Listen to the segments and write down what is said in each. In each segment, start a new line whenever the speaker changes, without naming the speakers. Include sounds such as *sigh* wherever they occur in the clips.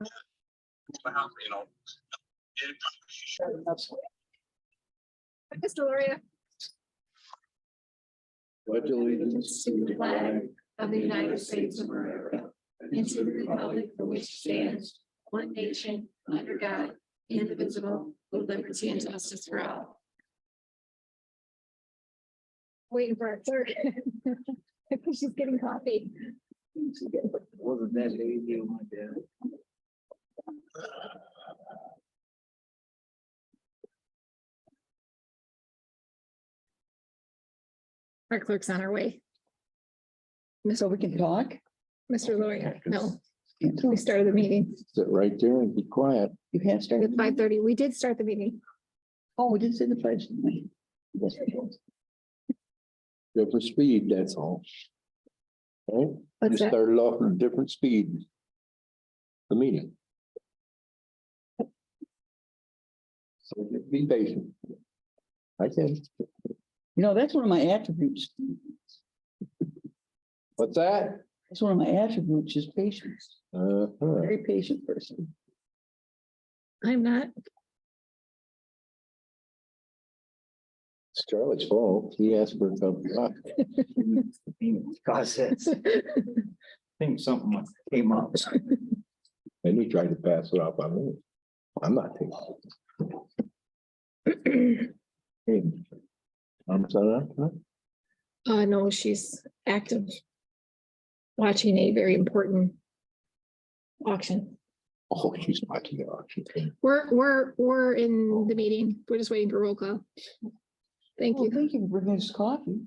Well, you know. it-
Mr. Loria
Pledge allegiance to the flag
of the United States of America and to the republic for which it stands one nation under God, indivisible, with liberty and justice for all. Waiting for our third. I think *laughs* she's getting coffee.
Wasn't that easy, my dad?
Our clerk's on her way.
So we can talk?
Mr. Loria, no, we started the meeting
Sit right there and be quiet.
You have started.
at five thirty. We did start the meeting.
Oh, we did say the pledge. didn't we? Yes, we did.
Go for speed, that's all. Okay, you
What's that?
started off at a different speed. The meeting. So just be patient. I can,
You know, that's one of my attributes.
what's that?
That's one of my attributes is patience,
Uh,
very patient
*laughs*
person.
I'm not. *laughs*
it's Charlie's fault. He asked for a cup of coffee.
Cause it's, I think something came up.
And he tried to pass it off on me. I'm not taking. it.
*clears throat*
Hey, I'm sorry, huh?
Uh, no, she's active. Watching a very important auction.
Oh, she's watching the auction.
We're, we're, we're in the meeting. We're just waiting for roll call. Thank
Well,
you.
Thank you for bringing us
*laughs*
coffee.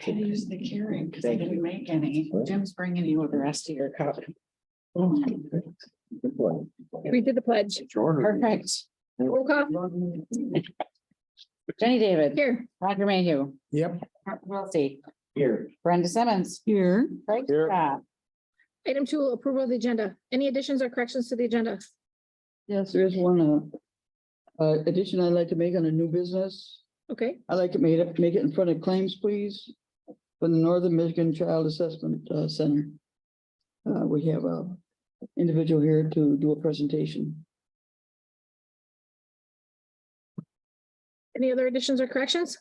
Can I use the Keurig because I
Thank
didn't make any.
Right.
Jim's bringing you the rest of your copy.
Good one.
We did the pledge.
Perfect.
Roll call
Jenny David,
here.
Roger Mayhew.
Yep.
Mark Wiltie,
Here,
Brenda Simmons.
Here,
Craig
Here.
Scott,
Item two, approval of the agenda. Any additions or corrections to the agenda?
yes, there is one, uh, uh, addition I'd like to make on a new business.
Okay,
I'd like to make it, make it in front of claims, please, for the Northern Michigan Child Assessment uh, Center. Uh, we have a individual here to do a presentation.
any other additions or corrections?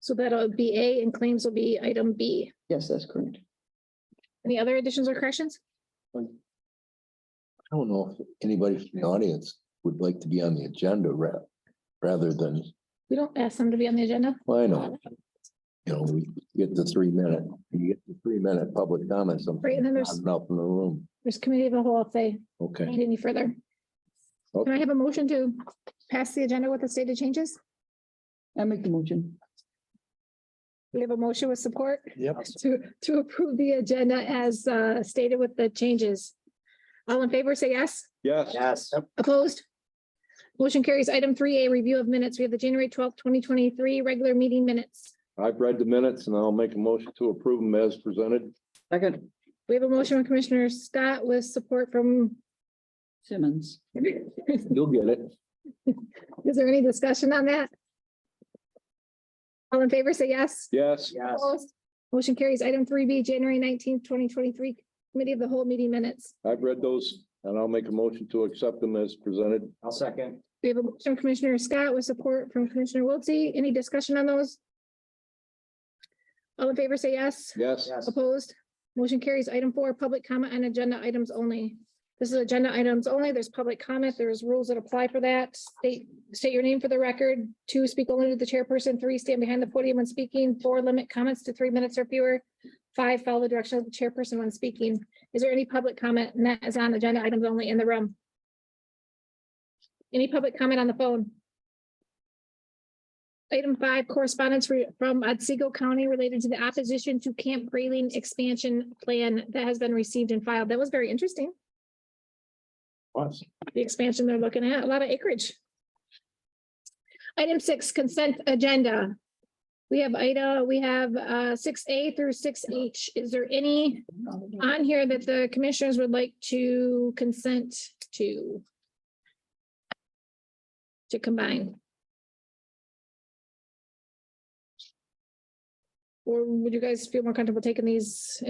So that'll be A and claims will be item B.
Yes, that's correct.
Any other additions or corrections?
I don't know if anybody from the audience would like to be on the agenda ra- rather than,
We don't ask them to be on the agenda.
well, I know. You know, we get the three minute, you get the three minute public comment
Right,
something.
and then there's-
Enough in the room.
There's committee of the whole if they
Okay.
need any further. Can I have a motion to pass the agenda with the stated changes?
I make the motion.
We have a motion with support
Yep.
to, to approve the agenda as uh, stated with the changes. All in favor, say yes.
Yes.
yes.
Opposed? Motion carries item three A, review of minutes. We have the January twelfth, twenty twenty-three regular meeting minutes.
I've read the minutes and I'll make a motion to approve them as presented.
Second,
We have a motion from Commissioner Scott with support from,
Simmons.
You'll get it.
is there any discussion on that? All in favor, say yes.
Yes.
Yes.
Opposed? Motion carries item three B, January nineteenth, twenty twenty-three, committee of the whole meeting minutes.
I've read those and I'll make a motion to accept them as presented.
I'll second.
We have a motion from Commissioner Scott with support from Commissioner Wiltie. Any discussion on those? All in favor, say yes.
Yes.
Yes.
Opposed? Motion carries. Item four, public comment on agenda items only. This is agenda items only. There's public comment. There's rules that apply for that. State, state your name for the record. Two, speak only to the chairperson. Three, stand behind the podium when speaking. Four, limit comments to three minutes or fewer. Five, follow the direction of the chairperson when speaking. Is there any public comment? And that is on agenda items only in the room. Any public comment on the phone? Item five, correspondence re- from Otsego County related to the opposition to Camp Grayling expansion plan that has been received and filed. That was very interesting.
Yes.
The expansion they're looking at, a lot of acreage. Item six, consent agenda. We have Ida, we have uh six A through six H. Is there any on here that the commissioners would like to consent to? To combine? Or would you guys feel more comfortable taking these